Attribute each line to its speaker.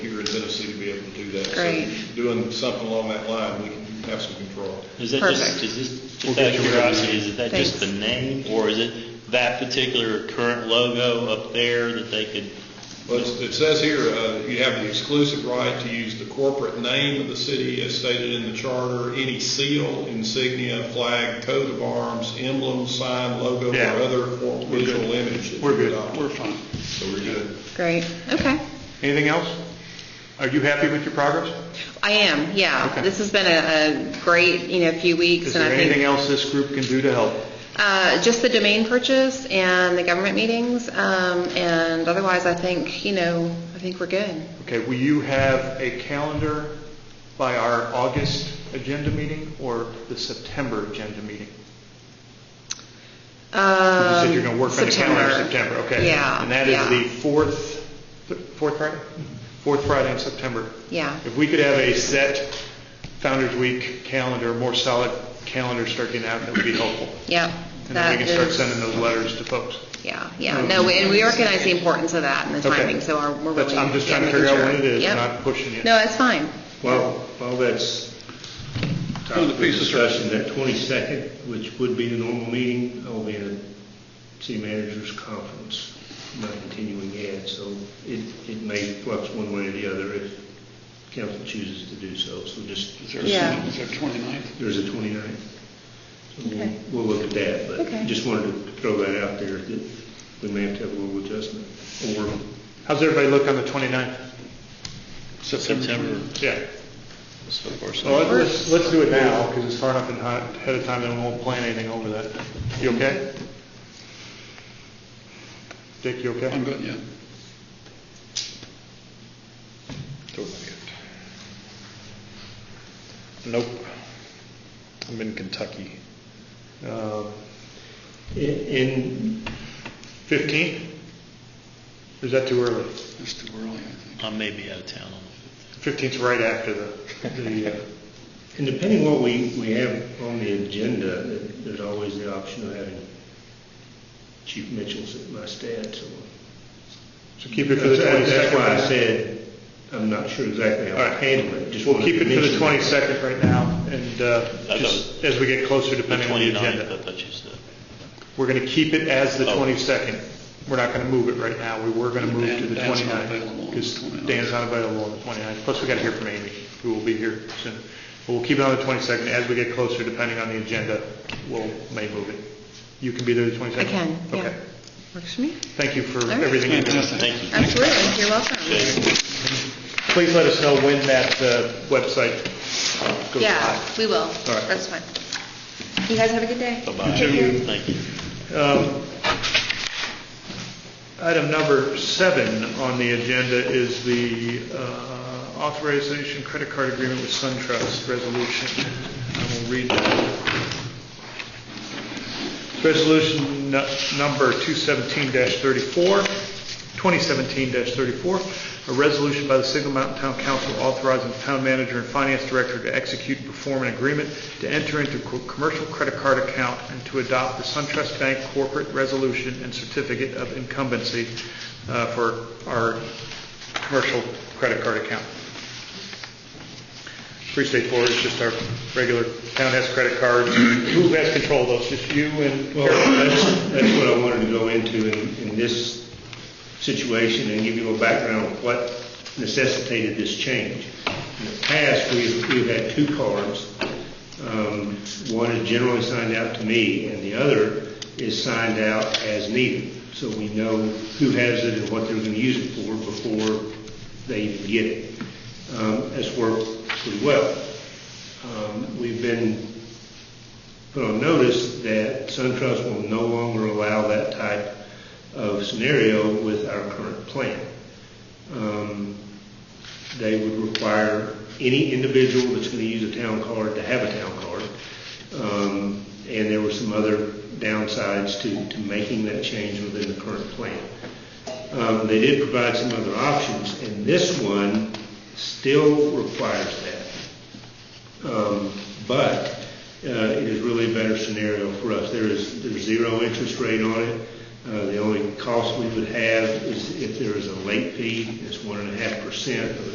Speaker 1: Tennessee to be able to do that.
Speaker 2: Great.
Speaker 1: So doing something along that line, we can have some control.
Speaker 3: Is that just,
Speaker 2: Perfect.
Speaker 3: is this,
Speaker 4: We'll
Speaker 3: just
Speaker 4: get
Speaker 3: out of
Speaker 4: you
Speaker 3: curiosity, is that just the
Speaker 2: Thanks.
Speaker 3: name, or is it that particular current logo up there that they could?
Speaker 1: Well, it's- it says here, uh, you have the exclusive right to use the corporate name of the city as stated in the charter, any seal, insignia, flag, coat of arms, emblem, sign, logo,
Speaker 4: Yeah.
Speaker 1: or other form-
Speaker 4: We're good.
Speaker 1: visual image. that
Speaker 4: We're
Speaker 1: you
Speaker 4: good,
Speaker 1: adopt.
Speaker 4: we're fine.
Speaker 1: So we're good.
Speaker 2: Great, okay.
Speaker 4: Anything else? Are you happy with your progress?
Speaker 2: I am, yeah.
Speaker 4: Okay.
Speaker 2: This has been a, a great, you know, few
Speaker 4: Is
Speaker 2: weeks, and
Speaker 4: there
Speaker 2: I think
Speaker 4: anything else this group can do to help?
Speaker 2: Uh, just the domain purchase and the government meetings, um, and otherwise, I think, you know, I think we're good.
Speaker 4: Okay, will you have a calendar by our August agenda meeting or the September agenda meeting? You said you're going to work on the calendar in September, okay.
Speaker 2: Um, Yeah.
Speaker 4: And that is
Speaker 2: yeah.
Speaker 4: the fourth, th- fourth Friday? Fourth Friday in September.
Speaker 2: Yeah,
Speaker 4: If we could have a set Founder's Week calendar, more solid calendar starting out, that would be helpful.
Speaker 2: yeah.
Speaker 4: And then we
Speaker 2: that
Speaker 4: can start
Speaker 2: is-
Speaker 4: sending those letters to folks.
Speaker 2: Yeah, yeah. No, and we recognize the importance of that and the
Speaker 4: Okay.
Speaker 2: timing, so our- we're
Speaker 4: That's-
Speaker 2: really.
Speaker 4: I'm just
Speaker 2: yeah,
Speaker 4: trying to
Speaker 2: making
Speaker 4: figure
Speaker 2: sure.
Speaker 4: out what it is,
Speaker 2: Yep.
Speaker 4: not pushing it.
Speaker 2: No, it's fine.
Speaker 5: While, while that's
Speaker 1: On
Speaker 5: topic
Speaker 1: the
Speaker 5: of
Speaker 1: piece of-
Speaker 5: discussion, that 22nd, which would be the normal meeting, I'll be at a city managers conference, my continuing ad, so it, it may flux one way or the other if council chooses to do so, so just,
Speaker 2: Yeah.
Speaker 6: Is there 29th?
Speaker 5: there's a 29th. So we'll-
Speaker 2: Okay.
Speaker 5: We'll look at that,
Speaker 2: Okay.
Speaker 5: but just wanted to throw that out there, that we may have to have a little adjustment, or
Speaker 4: How's everybody look on the 29th?
Speaker 3: September.
Speaker 4: Yeah.
Speaker 3: So far, so
Speaker 4: Well, let's, let's do it now, because it's far enough in- ahead of time, and we won't plan anything over that. You okay? Dick, you okay?
Speaker 6: I'm good, yeah.
Speaker 1: Totally good. Nope. I'm in Kentucky.
Speaker 4: Um,
Speaker 5: in,
Speaker 4: 15? Or is that too early?
Speaker 6: It's too early, I think.
Speaker 3: I may be out of town on the
Speaker 4: 15th's right after the, the, uh,
Speaker 5: And depending what we, we have on the agenda, th- there's always the option of having Chief Mitchell sit my stats. so.
Speaker 4: so keep it for the 22nd.
Speaker 5: That's why I said, I'm not sure exactly how
Speaker 4: All
Speaker 5: to
Speaker 4: right.
Speaker 5: handle it. Just
Speaker 4: We'll
Speaker 5: wanted
Speaker 4: keep
Speaker 5: to
Speaker 4: it for the
Speaker 5: mention that.
Speaker 4: 22nd right now, and uh,
Speaker 3: thought-
Speaker 4: just as we get closer, depending on the
Speaker 3: 29th, I
Speaker 4: agenda.
Speaker 3: thought you said.
Speaker 4: We're going to keep it as the
Speaker 3: Oh.
Speaker 4: 22nd. We're not going to move it right now. We were going to move to the
Speaker 6: Dan's not
Speaker 4: 29th,
Speaker 6: available on
Speaker 4: because
Speaker 6: the 29th.
Speaker 4: Dan's not available on the 29th. Plus, we got to hear from Amy, who will be here soon. But we'll keep it on the 22nd. As we get closer, depending on the agenda, we'll may move it. You can be there the 22nd?
Speaker 2: I can, yeah.
Speaker 4: Okay.
Speaker 2: Works for me.
Speaker 4: Thank you for
Speaker 2: right.
Speaker 4: everything you do.
Speaker 6: Fantastic.
Speaker 3: Thank you.
Speaker 2: Absolutely, you're welcome.
Speaker 4: Please let us know when that uh, website goes
Speaker 2: Yeah,
Speaker 4: live.
Speaker 2: we will.
Speaker 4: right.
Speaker 2: That's fine. You guys have a good day.
Speaker 3: Bye-bye.
Speaker 2: Take care.
Speaker 3: Thank you.
Speaker 4: Um, Item number seven on the agenda is the uh, authorization credit card agreement with SunTrust resolution. I will read that. Resolution nu- number 217-34, 2017-34, a resolution by the Signal Mountain Town Council authorizing the town manager and finance director to execute and perform an agreement to enter into co- commercial credit card account and to adopt the SunTrust Bank corporate resolution and certificate of incumbency uh, for our commercial credit card account. Pretty straightforward, it's just our regular town has credit cards. Who has control of those? Just you and
Speaker 5: Well, that's, that's what I wanted to go into in, in this situation and give you a background of what necessitated this change. In the past, we've, we've had two cards. Um, one is generally signed out to me and the other is signed out as needed. So we know who has it and what they're going to use it for before they even get it. Um, that's worked pretty well. Um, we've been put on notice that SunTrust will no longer allow that type of scenario with our current plan. Um, They would require any individual that's going to use a town card to have a town card. Um, And there were some other downsides to, to making that change within the current plan. Um, They did provide some other options, and this one still requires that. Um, But uh, it is really a better scenario for us. There is, there's zero interest rate on it. Uh, The only cost we would have is if there is a late fee, it's one and a half percent of the